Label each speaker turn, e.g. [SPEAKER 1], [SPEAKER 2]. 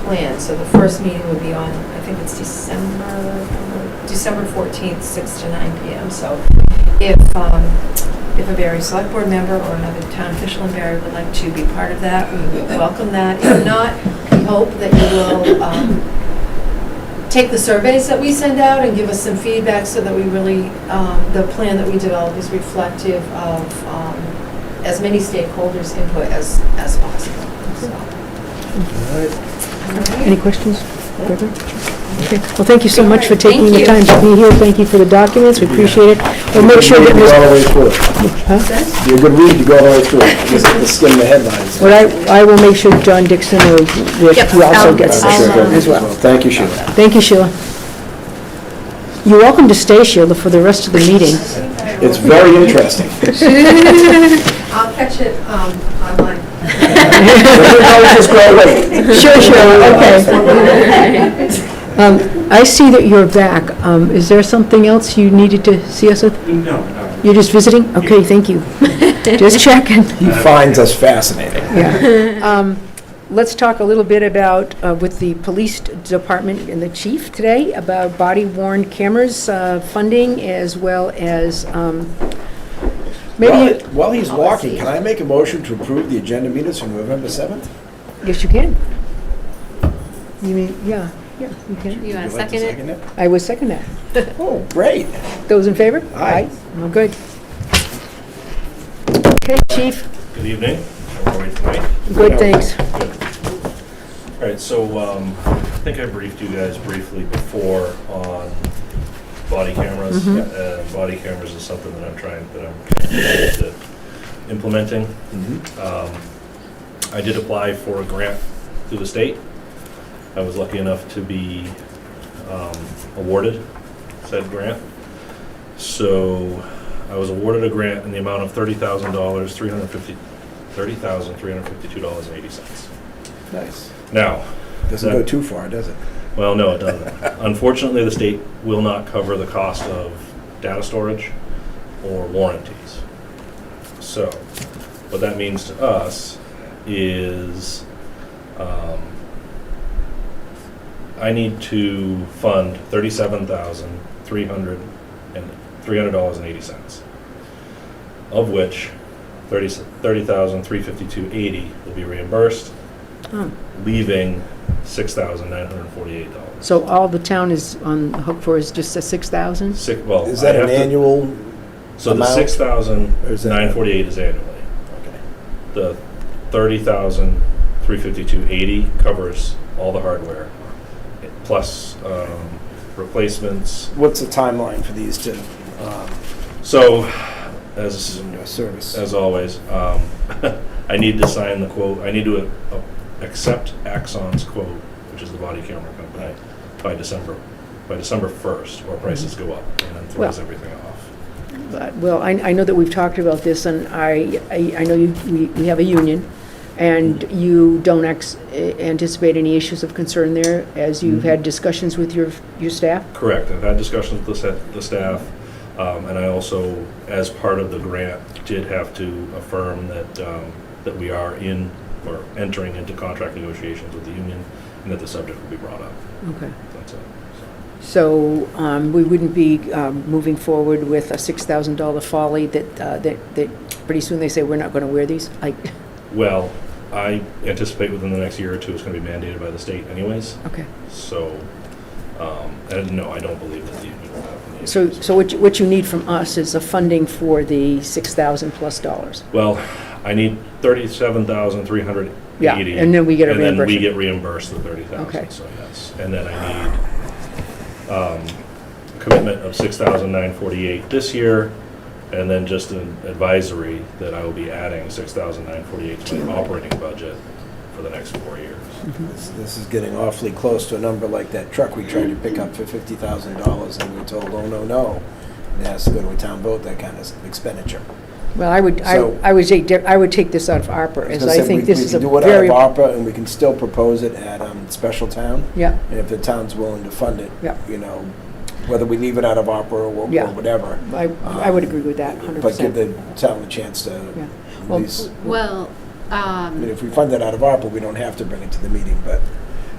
[SPEAKER 1] plan, so the first meeting would be on, I think it's December, December 14th, 6 to 9 PM. So if, um, if a Barry Select Board member or another town official in Barry would like to be part of that, we would welcome that. If not, we hope that you will um, take the surveys that we send out and give us some feedback so that we really, um, the plan that we develop is reflective of um, as many stakeholders' input as, as possible. So,
[SPEAKER 2] Any questions further? Okay, well, thank you so much for taking the time to be here, thank you for the documents, we appreciate it. We'll make sure that,
[SPEAKER 3] You go
[SPEAKER 2] Ms-
[SPEAKER 3] all the way through it.
[SPEAKER 2] huh?
[SPEAKER 3] You're a good read, you go all the way through it. Just have to skim the headlines.
[SPEAKER 2] Well, I, I will make sure John Dixon or Rick
[SPEAKER 1] Yep,
[SPEAKER 2] who also
[SPEAKER 1] I'll-
[SPEAKER 2] gets
[SPEAKER 3] I'm
[SPEAKER 2] this
[SPEAKER 3] sure he'll-
[SPEAKER 2] as well.
[SPEAKER 3] Thank you, Sheila.
[SPEAKER 2] Thank you, Sheila. You're welcome to stay, Sheila, for the rest of the meeting.
[SPEAKER 3] It's very interesting.
[SPEAKER 1] I'll catch it um, online.
[SPEAKER 3] Just go away.
[SPEAKER 2] Sure, sure, okay. Um, I see that you're back. Um, Is there something else you needed to see us with?
[SPEAKER 4] No, no.
[SPEAKER 2] You're just visiting? Okay, thank you. Just checking.
[SPEAKER 3] He finds us fascinating.
[SPEAKER 2] Yeah. Um, Let's talk a little bit about, uh, with the police department and the chief today, about body worn cameras uh, funding as well as um,
[SPEAKER 3] While
[SPEAKER 2] maybe,
[SPEAKER 3] while he's walking, can I make a motion to approve the agenda minutes from November 7th?
[SPEAKER 2] yes, you can. You mean, yeah, yeah,
[SPEAKER 1] You
[SPEAKER 2] you can.
[SPEAKER 1] want to
[SPEAKER 3] Would you like
[SPEAKER 1] second
[SPEAKER 3] to
[SPEAKER 1] it?
[SPEAKER 3] it?
[SPEAKER 2] I would second that.
[SPEAKER 3] Oh, great.
[SPEAKER 2] Those in favor?
[SPEAKER 3] Aye.
[SPEAKER 2] Well, good. Okay, chief,
[SPEAKER 4] Good evening. How are we tonight?
[SPEAKER 2] good, thanks.
[SPEAKER 4] All right, so um, I think I briefed you guys briefly before on body cameras. Uh, Body cameras is something that I'm trying, that I'm committed to implementing.
[SPEAKER 3] Mm-hmm.
[SPEAKER 4] Um, I did apply for a grant through the state. I was lucky enough to be um, awarded said grant. So I was awarded a grant in the amount of $30,000, $350 $30,352.80.
[SPEAKER 3] Nice.
[SPEAKER 4] Now,
[SPEAKER 3] Doesn't go too far, does it?
[SPEAKER 4] well, no, it doesn't. Unfortunately, the state will not cover the cost of data storage or warranties. So, what that means to us is um, I need to fund thirty-seven thousand three hundred and three hundred dollars and eighty cents, of which thirty thirty thousand three fifty-two eighty will be reimbursed,
[SPEAKER 2] Oh.
[SPEAKER 4] leaving six thousand nine hundred and forty-eight dollars.
[SPEAKER 2] So all the town is on the hook for is just the 6,000?
[SPEAKER 4] Six, well,
[SPEAKER 3] Is that
[SPEAKER 4] I
[SPEAKER 3] an
[SPEAKER 4] have to-
[SPEAKER 3] annual?
[SPEAKER 4] So the
[SPEAKER 3] amount?
[SPEAKER 4] six thousand
[SPEAKER 3] Or is that-
[SPEAKER 4] nine forty-eight is annually.
[SPEAKER 3] Okay.
[SPEAKER 4] The thirty thousand three fifty-two eighty covers all the hardware, plus um, replacements.
[SPEAKER 3] What's the timeline for these to, um,
[SPEAKER 4] So, as
[SPEAKER 3] you know, service?
[SPEAKER 4] as always, um, I need to sign the quote. I need to uh, accept Axon's quote, which is the body camera company, by December by December first, or prices go up and then throws
[SPEAKER 2] Well-
[SPEAKER 4] everything off.
[SPEAKER 2] But- Well, I, I know that we've talked about this, and I, I I know you, we, we have a union, and you don't ex- anticipate any issues of concern there, as you've had discussions with your, your staff?
[SPEAKER 4] Correct. I've had discussions with the sa- the staff, um, and I also, as part of the grant, did have to affirm that, um, that we are in, or entering into contract negotiations with the union, and that the subject will be brought up.
[SPEAKER 2] Okay.
[SPEAKER 4] That's it. So,
[SPEAKER 2] So um, we wouldn't be um, moving forward with a $6,000 folly that, uh, that, that pretty soon they say, we're not going to wear these? I,
[SPEAKER 4] Well, I anticipate within the next year or two, it's gonna be mandated by the state anyways,
[SPEAKER 2] okay.
[SPEAKER 4] so, um, and no, I don't believe that the union will have any
[SPEAKER 2] So,
[SPEAKER 4] issues.
[SPEAKER 2] so what you, what you need from us is a funding for the 6,000 plus dollars?
[SPEAKER 4] Well, I need thirty-seven thousand, three hundred
[SPEAKER 2] Yeah,
[SPEAKER 4] eighty.
[SPEAKER 2] and then we get a
[SPEAKER 4] And then we
[SPEAKER 2] reimbursement.
[SPEAKER 4] get reimbursed the thirty
[SPEAKER 2] Okay.
[SPEAKER 4] thousand, so yes. And then I need, um, a commitment of six thousand nine forty-eight this year, and then just an advisory that I will be adding six thousand nine forty-eight to my operating budget for the next four years.
[SPEAKER 3] This this is getting awfully close to a number like that truck we tried to pick up for fifty thousand dollars and we were told, oh, no, no. It has to go to a town vote, that kind of expenditure.
[SPEAKER 2] Well, I would, I
[SPEAKER 3] So-
[SPEAKER 2] I would take, di- I would take this out of ARPA, as I think this is a very...
[SPEAKER 3] We can do it out of ARPA and we can still propose it at, um, special town.
[SPEAKER 2] Yeah,
[SPEAKER 3] And if the town's willing to fund it,
[SPEAKER 2] Yeah.
[SPEAKER 3] you know, whether we leave it out of ARPA or wha-
[SPEAKER 2] Yeah.
[SPEAKER 3] or whatever.
[SPEAKER 2] I, I would agree with that, 100%.
[SPEAKER 3] But give the town the chance to
[SPEAKER 2] Yeah.
[SPEAKER 3] at
[SPEAKER 2] Well,
[SPEAKER 3] least,
[SPEAKER 5] Well,
[SPEAKER 3] I mean,
[SPEAKER 5] um,
[SPEAKER 3] if we fund it out of ARPA, we don't have to bring it to the meeting, but